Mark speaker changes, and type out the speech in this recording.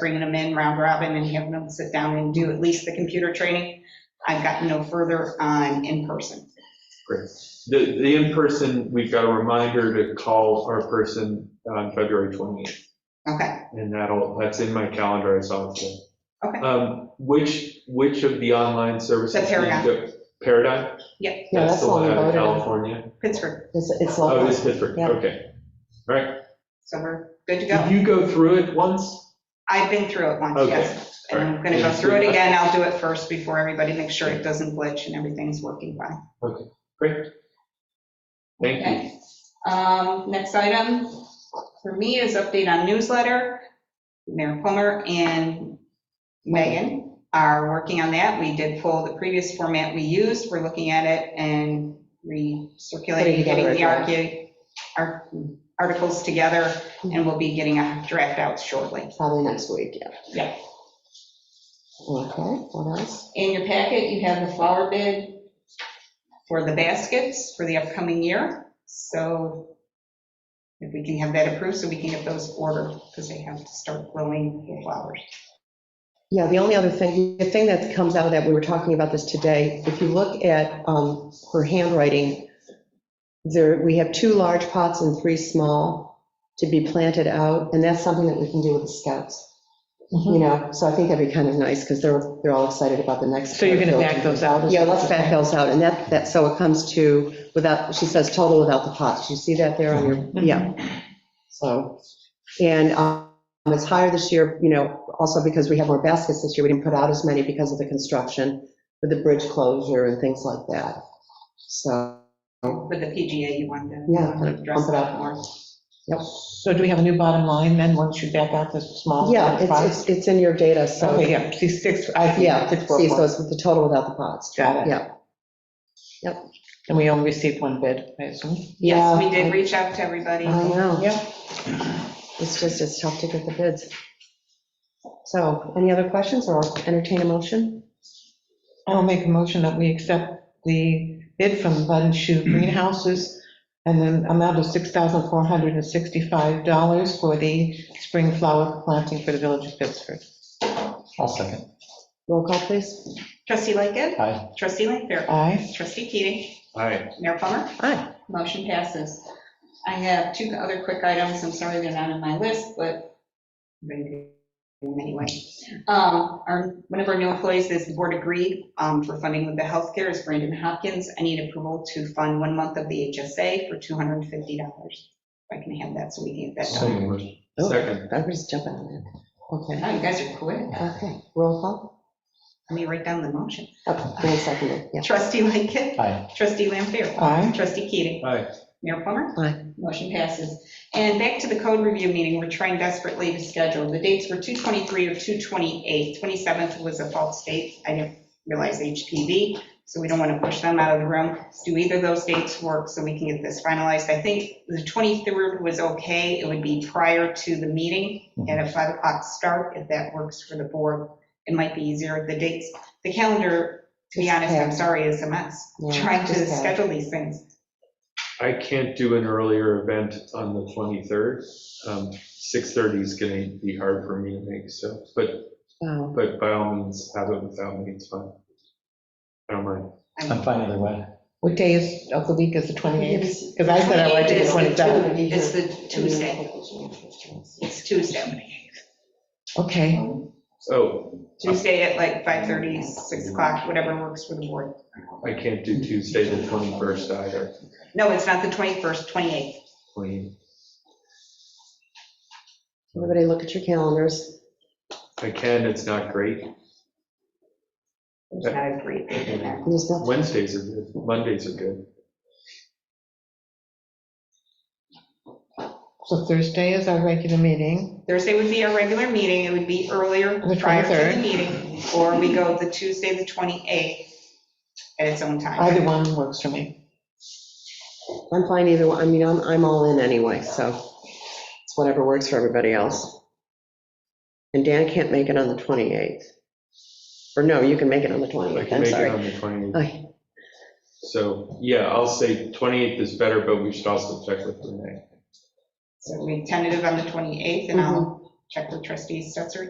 Speaker 1: bringing them in round robin and having them sit down and do at least the computer training. I've gotten no further on in person.
Speaker 2: The, the in-person, we've got a reminder to call our person on February 28th,
Speaker 1: Okay,
Speaker 2: and that'll, that's in my calendar, I saw it today.
Speaker 1: Okay.
Speaker 2: Um, Which, which of the online services?
Speaker 1: The Paradigm.
Speaker 2: do you go- Paradigm?
Speaker 1: yeah,
Speaker 3: Yeah, that's
Speaker 2: the
Speaker 3: all
Speaker 2: one
Speaker 3: we
Speaker 2: out of
Speaker 3: voted on.
Speaker 2: California?
Speaker 1: Pittsburgh,
Speaker 3: It's, it's
Speaker 2: Oh, it is
Speaker 3: local.
Speaker 2: Pittsburgh,
Speaker 3: Yeah.
Speaker 2: okay. All right.
Speaker 1: so we're good to go.
Speaker 2: Did you go through it once?
Speaker 1: I've been through it once,
Speaker 2: Mm-hmm. Okay,
Speaker 1: yes. And I'm going to
Speaker 2: all
Speaker 1: go
Speaker 2: right.
Speaker 1: through it again. I'll do it first before everybody, make sure it doesn't glitch and everything's working fine.
Speaker 2: Thank you.
Speaker 1: Okay. Um, Next item for me is update on newsletter. Mayor Plummer and Megan are working on that. We did pull the previous format we used. We're looking at it and recirculating,
Speaker 3: Putting together
Speaker 1: getting
Speaker 3: a
Speaker 1: the arcu- ar- articles together, and we'll be getting a draft out shortly.
Speaker 3: Probably next week, yeah.
Speaker 1: Yeah.
Speaker 3: Okay, what else?
Speaker 1: In your packet, you have the flower bid for the baskets for the upcoming year. So if we can have that approved, so we can get those ordered, because they have to start growing the flowers.
Speaker 3: Yeah, the only other thing, the thing that comes out of that, we were talking about this today, if you look at um, her handwriting, there, we have two large pots and three small to be planted out, and that's something that we can do with the scouts.
Speaker 4: Mm-hmm.
Speaker 3: You know, so I think that'd be kind of nice, because they're, they're all excited about the next.
Speaker 4: So you're going to back those out? is
Speaker 3: Yeah,
Speaker 4: what
Speaker 3: let's
Speaker 4: you're
Speaker 3: back
Speaker 4: saying?
Speaker 3: those out, and that, that, so it comes to, without, she says total without the pots, you see that there on
Speaker 4: Mm-hmm.
Speaker 3: your, yeah. So, and um, it's higher this year, you know, also because we have more baskets this year, we didn't put out as many because of the construction, with the bridge closure and things like that. So,
Speaker 1: With the PGA, you want to.
Speaker 3: Yeah, pump it
Speaker 1: Dress it
Speaker 3: up.
Speaker 1: up more.
Speaker 4: So do we have a new bottom line then, once you back out the small?
Speaker 3: yeah,
Speaker 4: pots?
Speaker 3: it's, it's, it's in your data, so,
Speaker 4: Okay, yeah, see six, I see.
Speaker 3: yeah,
Speaker 4: six, four,
Speaker 3: see, so
Speaker 4: four.
Speaker 3: it's with the total without the pots.
Speaker 4: Got it.
Speaker 3: Yeah.
Speaker 4: And we only received one bid, I assume?
Speaker 3: Yeah,
Speaker 1: Yes, we did reach out to everybody.
Speaker 3: I know.
Speaker 4: Yeah.
Speaker 3: It's just, it's tough to get the bids. So, any other questions, or I'll entertain a motion?
Speaker 4: I'll make a motion that we accept the bid from Bud and Shoe Greenhouses and an amount of $6,465 for the spring flower planting for the village of Pittsford.
Speaker 5: I'll second.
Speaker 3: Roll call, please.
Speaker 1: Trustee Lightgev.
Speaker 5: Aye.
Speaker 1: Trustee Lanfair.
Speaker 4: Aye.
Speaker 1: Trustee Keating.
Speaker 2: All right.
Speaker 1: Mayor Plummer.
Speaker 3: Aye.
Speaker 1: Motion passes. I have two other quick items, I'm sorry they're not on my list, but they do anyway. Um, Our, one of our new employees, this board agreed um, for funding with the healthcare is Brandon Hopkins. I need approval to fund one month of the HSA for $250. If I can have that so we can get that
Speaker 5: So
Speaker 1: done.
Speaker 5: moved.
Speaker 3: Oh,
Speaker 2: Second.
Speaker 3: I was jumping on that.
Speaker 1: Oh, you guys are quick.
Speaker 3: Okay, okay, roll call.
Speaker 1: Let me write down the motion.
Speaker 3: Oh, Dan seconded, yeah.
Speaker 1: Trustee Lightgev.
Speaker 5: Aye.
Speaker 1: Trustee Lampier.
Speaker 4: Aye.
Speaker 1: Trustee Keating.
Speaker 2: Aye.
Speaker 1: Mayor Plummer?
Speaker 3: Aye.
Speaker 1: Motion passes. And back to the code review meeting, we're trying desperately to schedule. The dates were 223 or 228. 27th was a false date. I didn't realize HPV, so we don't want to push them out of the room. Do either of those dates work so we can get this finalized? I think the 23rd was okay. It would be prior to the meeting
Speaker 3: Mm-hmm.
Speaker 1: at a 5 o'clock start, if that works for the board. It might be easier, the dates. The calendar, to be
Speaker 3: It's
Speaker 1: honest, I'm
Speaker 3: packed.
Speaker 1: sorry, is a mess.
Speaker 3: Yeah,
Speaker 1: Trying to
Speaker 3: it's packed.
Speaker 1: schedule these things.
Speaker 2: I can't do an earlier event on the 23rd. Um, 6:30 is going to be hard for me to make, so, but
Speaker 3: Oh,
Speaker 2: But by all means, have it without me, it's fine. I don't mind.
Speaker 5: I'm fine either way.
Speaker 4: What day is, of the week is the 28th? Because I said I
Speaker 1: like
Speaker 4: liked it the 27th.
Speaker 1: It's the Tuesday, it's Tuesday.
Speaker 4: Okay,
Speaker 2: Oh,
Speaker 1: Tuesday at like 5:30, 6 o'clock, whatever works for the board.
Speaker 2: I can't do Tuesday the 21st either.
Speaker 1: No, it's not the 21st, 28th.
Speaker 2: Clean.
Speaker 3: Everybody look at your calendars.
Speaker 2: I can, it's not great.
Speaker 1: It's not a great date in there.
Speaker 3: There's no-
Speaker 2: Wednesdays are good, Mondays are good.
Speaker 4: so Thursday is our regular meeting.
Speaker 1: Thursday would be our regular meeting, it would be earlier,
Speaker 4: The
Speaker 1: prior to
Speaker 4: 23rd.
Speaker 1: the meeting, or we go the Tuesday, the 28th at its own
Speaker 4: Either
Speaker 1: time.
Speaker 4: one works for me.
Speaker 3: I'm fine either, one. I mean, I'm, I'm all in anyway, so it's whatever works for everybody else. And Dan can't make it on the 28th. Or no, you can make it on the
Speaker 2: I
Speaker 3: 28th,
Speaker 2: can
Speaker 3: I'm
Speaker 2: make it
Speaker 3: sorry. Oh,
Speaker 2: on the 28th.
Speaker 3: Okay.
Speaker 2: So, yeah, I'll say 28th is better, but we should also check with Renee.
Speaker 4: Mm-hmm.
Speaker 1: So we tentative on the 28th, and I'll check with trustee Stetser